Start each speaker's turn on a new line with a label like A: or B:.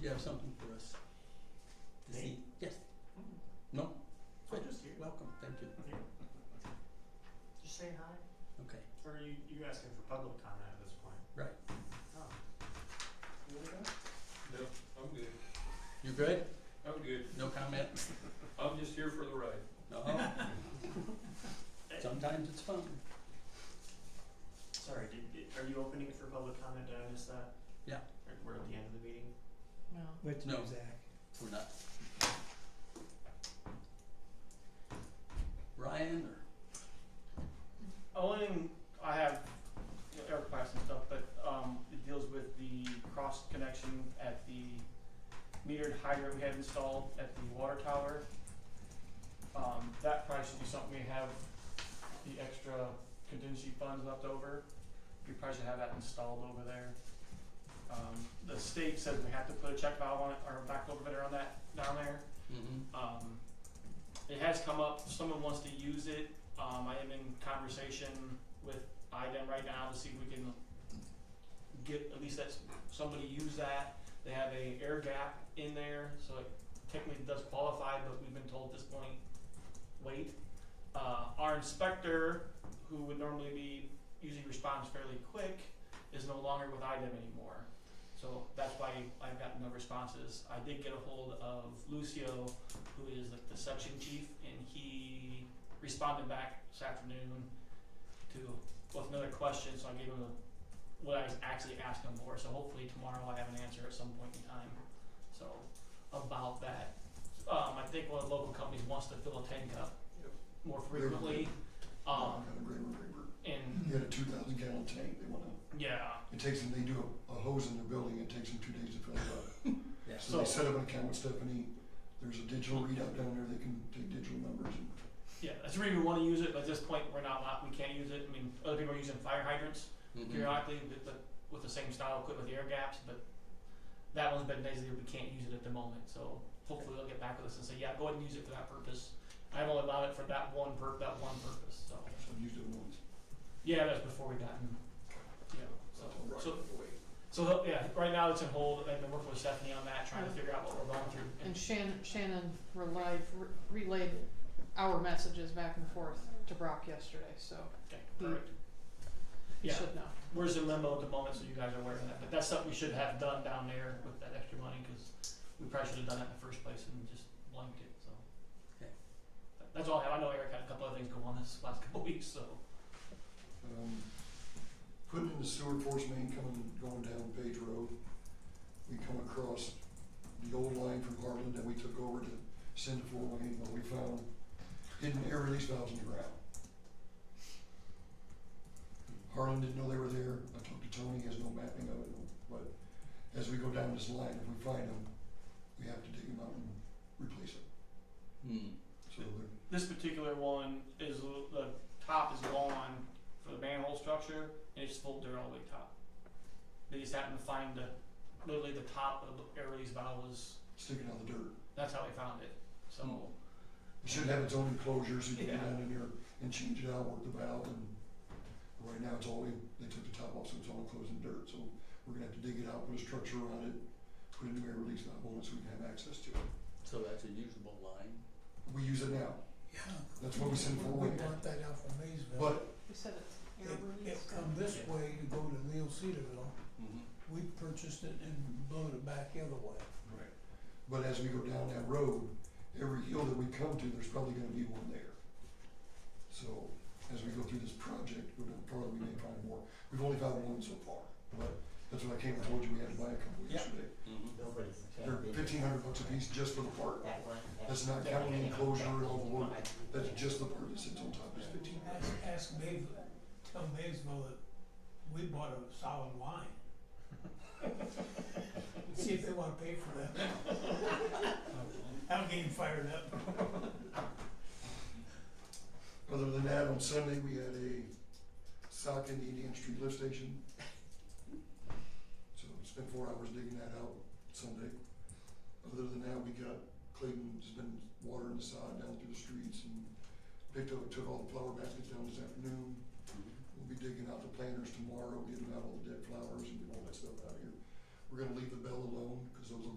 A: you have something for us this
B: Me?
A: evening? Yes,
B: I'm just here.
A: welcome, thank you.
B: I'm here. Just say hi.
A: Okay,
B: Or are you, you asking for public comment at this point?
A: Right.
B: Oh. You wanna go?
C: No, I'm good.
A: you good?
C: I'm good.
A: No comment?
C: I'm just here for the ride.
A: No? Sometimes it's fun.
B: Sorry, did, did- are you opening it for public comment? Did I miss that?
A: Yeah.
B: Or We're at the end of the meeting?
D: No.
E: Wait to
A: No.
E: Zach.
A: We're not. Ryan or
F: Only thing I have, you know, air class and stuff, but, um, it deals with the cross connection at the metered hydrant we had installed at the water tower. Um, that probably should be something we have the extra contingency funds left over. We probably should have that installed over there. Um, the state says we have to put a check valve on it, or a back over on that down there.
A: mm-hmm.
F: Um, it has come up, someone wants to use it, um, I am in conversation with IDEM right now to see if we can get, at least that's, somebody use that, they have a air gap in there, so it technically does qualify, but we've been told at this point, wait. Uh, our inspector, who would normally be, usually responds fairly quick, is no longer with IDEM anymore. So that's why I've gotten no responses. I did get a hold of Lucio, who is like the section chief, and he responded back this afternoon to with another question. So I gave him the, what I was actually asking him for. So hopefully tomorrow I have an answer at some point in time. So about that, um, I think one of the local companies wants to fill a tank up
C: Yep.
F: more frequently. Um, and
G: He had a two thousand gallon tank, they wanna,
F: yeah,
G: it takes them, they do a, a hose in the building, it takes them two days to fill it up.
A: Yeah.
G: So they
F: So-
G: set up an account with Stephanie, there's a digital readout down there, they can take digital numbers and
F: yeah, that's where we want to use it. But at this point, we're not. allowed- We can't use it. I mean, other people are using fire hydrants.
A: Mm-hmm.
F: periodically with the, with the same style equipment with air gaps, but that one's been basically, we can't use it at the moment, so hopefully they'll get back with us and say, yeah, go ahead and use it for that purpose. I've only allowed it for that one per, that one purpose, so,
G: so I've used it once.
F: yeah, that's before we got, in, you know, so,
G: Right
F: so,
G: away.
F: so, they'll- yeah, right now it's in hold, I've been working with Stephanie on that, trying to figure out what we're going through.
D: And Shannon, Shannon relied, re- relayed our messages back and forth to Brock yesterday, so
F: Okay, perfect.
D: he
F: Yeah.
D: should know.
F: We're just in limbo at the moment, so you guys are aware of that, but that's something we should have done down there with that extra money, cause we probably should have done that in the first place and just blanked it, so.
A: Okay.
F: That- That's all I have, I know Eric had a couple other things go on this last couple weeks, so.
G: Um, putting in the sewer force main coming, going down Page Road, we come across the old line from Harlan that we took over to send to Fort Wayne, but we found hidden air release valves in the ground. Harlan didn't know they were there, I talked to Tony, he has no mapping of it, but as we go down this line, if we find them, we have to dig them out and replace it,
A: Mm-hmm.
G: so they're
F: This particular one is, l- the top is gone for the manhole structure, and it's full dirt all the way top. They just happened to find the, literally the top of the air release valve was,
G: sticking out of the dirt.
F: that's how they found it, so.
G: It should have its own enclosures, you can
F: Yeah.
G: get down in there and change it out, work the valve, and right now it's all, in- they took the top off, so it's all enclosed in dirt, so we're gonna have to dig it out, put a structure around it, put a new air release valve on it, so we can have access to it.
A: So that's a usable line.
G: We use it now,
E: Yeah.
G: that's what we send for
E: We
G: Wayne,
E: bought that out from Maysville.
G: but
D: He said it's air
E: It, it
D: release.
E: come this way, you go to Leo Cedarville,
A: Mm-hmm.
E: we purchased it and blew it back the other way.
G: But as we go down that road, every hill that we come to, there's probably gonna be one there. So, as we go through this project, we're gonna probably may find more, we've only found one so far, but that's what I came and told you, we had to buy a couple
B: Yeah.
G: yesterday.
A: Mm-hmm.
G: They're fifteen hundred bucks a piece just for the part,
B: That one.
G: that's not counting the enclosure and all the work, that's just the part that sits on top, is fifteen
E: Ask, ask Maysville, tell Maysville that we bought a solid line. See if they wanna pay for that. That'll get him fired up.
G: Other than that, on Sunday, we had a sock in the Indian Street lift station. So spent four hours digging that out Sunday. Other than that, we got, Clayton's been watering the sod down through the streets and picked up, took all the flower baskets down this afternoon. We'll be digging out the planters tomorrow, getting out all the dead flowers and getting all that stuff out of here. We're gonna leave the bell alone, cause those are